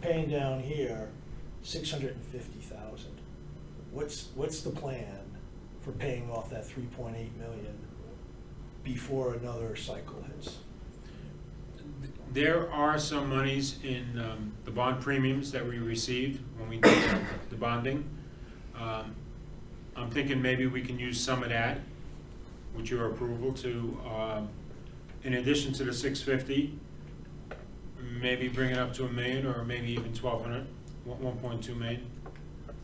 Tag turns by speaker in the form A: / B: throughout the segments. A: paying down here six hundred and fifty thousand. What's, what's the plan for paying off that three point eight million before another cycle hits?
B: There are some monies in um, the bond premiums that we received when we did the bonding. Um, I'm thinking maybe we can use some of that with your approval to, um, in addition to the 650, maybe bring it up to a million or maybe even 1,200, 1.2 million.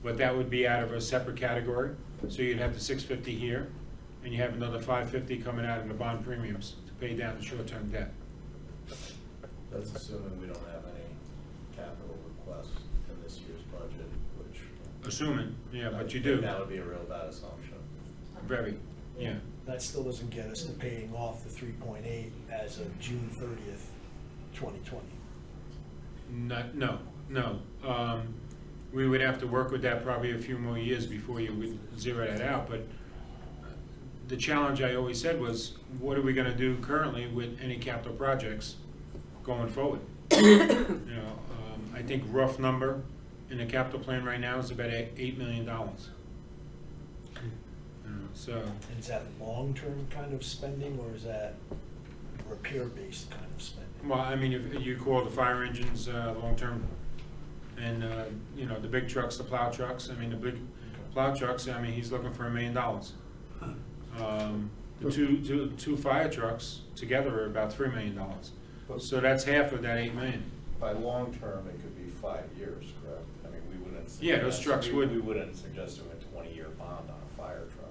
B: But that would be out of a separate category. So you'd have the 650 here and you have another 550 coming out of the bond premiums to pay down the short-term debt.
C: That's assuming we don't have any capital requests in this year's budget, which.
B: Assuming, yeah, but you
C: I think
B: do,
C: That would be a real bad assumption.
B: very, yeah.
A: That still doesn't get us to paying off the three point eight as of June thirtieth, twenty twenty.
B: Not, no, no. Um, We would have to work with that probably a few more years before you would zero that out, but the challenge I always said was, what are we gonna do currently with any capital projects going forward? You know, um, I think rough number in the capital plan right now is about eight eight million dollars. You know, So,
A: And is that long-term kind of spending or is that repair-based kind of spending?
B: Well, I mean, if you call the fire engines uh, long-term, and, uh, you know, the big trucks, the plow trucks, I mean, the big plow trucks, I mean, he's looking for a million dollars. Um, The two, two, two fire trucks together are about three million dollars. So that's half of that eight million.
C: By long-term, it could be five years, correct? I mean, we wouldn't.
B: Yeah, those
C: suggest-
B: trucks
C: we-
B: would-
C: We wouldn't suggest doing a twenty-year bond on a fire truck.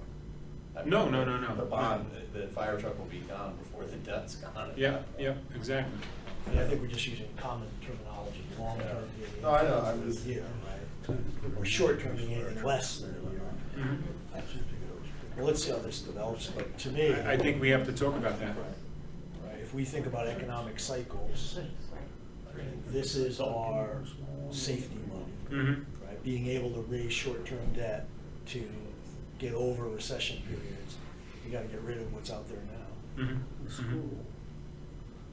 C: I mean,
B: No, no, no, no.
C: The bond, the, the fire truck will be gone before the debt's gone. at
B: Yeah,
C: that point.
B: yeah, exactly.
A: And I think we're just using common terminology, long-term being.
C: No, I know, I was-
A: a year, right? Or short-term being anything less than a year.
B: Mhm.
A: Well, let's see how this develops, but to me.
B: I I think we have to talk about that.
A: Right, right. if we think about economic cycles, this is our safety money.
B: Mhm.
A: right? Being able to raise short-term debt to get over recession periods, you gotta get rid of what's out there now.
B: Mhm. Mhm.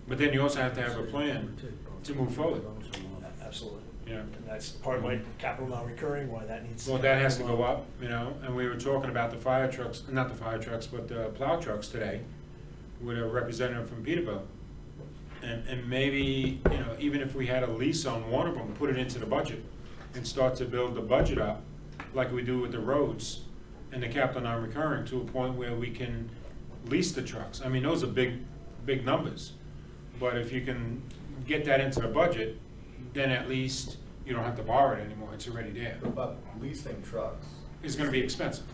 B: But then you also have to have a plan to move forward.
A: A- Absolutely.
B: Yeah.
A: And that's part of my capital non-recurring, why that needs.
B: Well, that has to go up, you know, and we were talking about the fire trucks, not the fire trucks, but the plow trucks today with a representative from Peterbilt. And, and maybe, you know, even if we had a lease on one of them, put it into the budget and start to build the budget up like we do with the roads and the capital non-recurring to a point where we can lease the trucks. I mean, those are big, big numbers. But if you can get that into the budget, then at least you don't have to borrow it anymore. It's already there
C: But leasing trucks,
B: is gonna be expensive.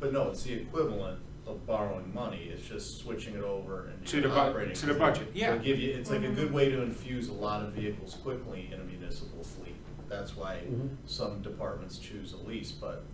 C: but no, it's the equivalent of borrowing money, it's just switching it over and.
B: To the bu-
C: operating.
B: to the budget, yeah.
C: It'll give you, it's like a good way to infuse a lot of vehicles quickly in a municipal fleet. That's why
A: Mm-hmm.
C: some departments choose a lease, but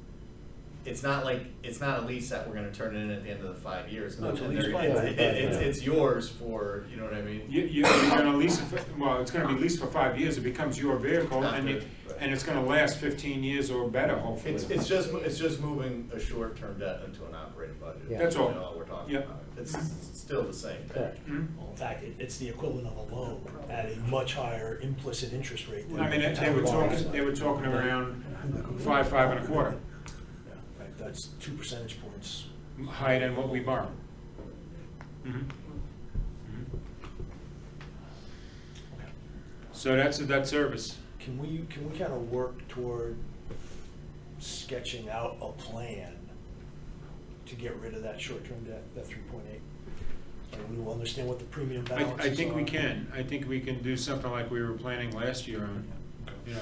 C: it's not like, it's not a lease that we're gonna turn in at the end of the five years.
A: No, it's a
C: And
A: lease
C: they're-
A: by
C: it's-
A: right.
C: It's, it's yours for, you know what I mean?
B: You, you- you're gonna lease it, for- well, it's gonna be leased for five years, it becomes your vehicle, and it, and it's gonna last fifteen years or better, hopefully.
C: It's, it's just, it's just moving a short-term debt into an operating budget.
D: Yeah.
B: That's all.
C: You know, we're talking
B: Yep.
C: about. It's s- still the same thing.
B: Hmm?
A: In fact, it, it's the equivalent of a loan at a much higher implicit interest rate. than
B: I mean, they- they were talking, they were talking around five, five and a quarter,
A: Right, That's two percentage points.
B: higher than what we borrow. Mhm. Mhm. So that's a debt service.
A: Can we, can we kind of work toward sketching out a plan to get rid of that short-term debt, that three point eight? And we will understand what the premium
B: I,
A: balance
B: I think we can, I think we can do something like we were planning last year on, you know,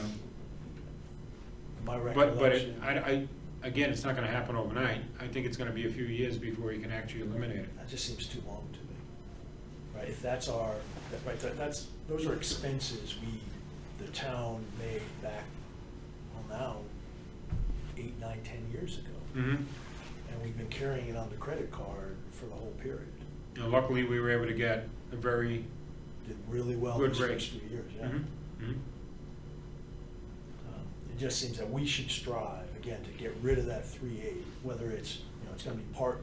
A: My
B: But, but it-
A: recollection.
B: I, I, again, it's not gonna happen overnight. I think it's gonna be a few years before you can actually eliminate it.
A: That just seems too long to me. Right, if that's our, that- right, that- that's, those are expenses we, the town made back, well now, eight, nine, ten years ago.
B: Mm-hmm.
A: And we've been carrying it on the credit card for the whole period.
B: And luckily, we were able to get a very
A: Did really well
B: good
A: these
B: rate.
A: first few years, yeah.
B: Mhm, mhm.
A: Um, It just seems that we should strive, again, to get rid of that three eight, whether it's, you know, it's gonna be part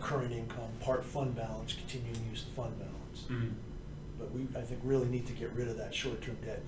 A: current income, part fund balance, continuing to use the fund balance.
B: Mhm.
A: But we, I think, really need to get rid of that short-term debt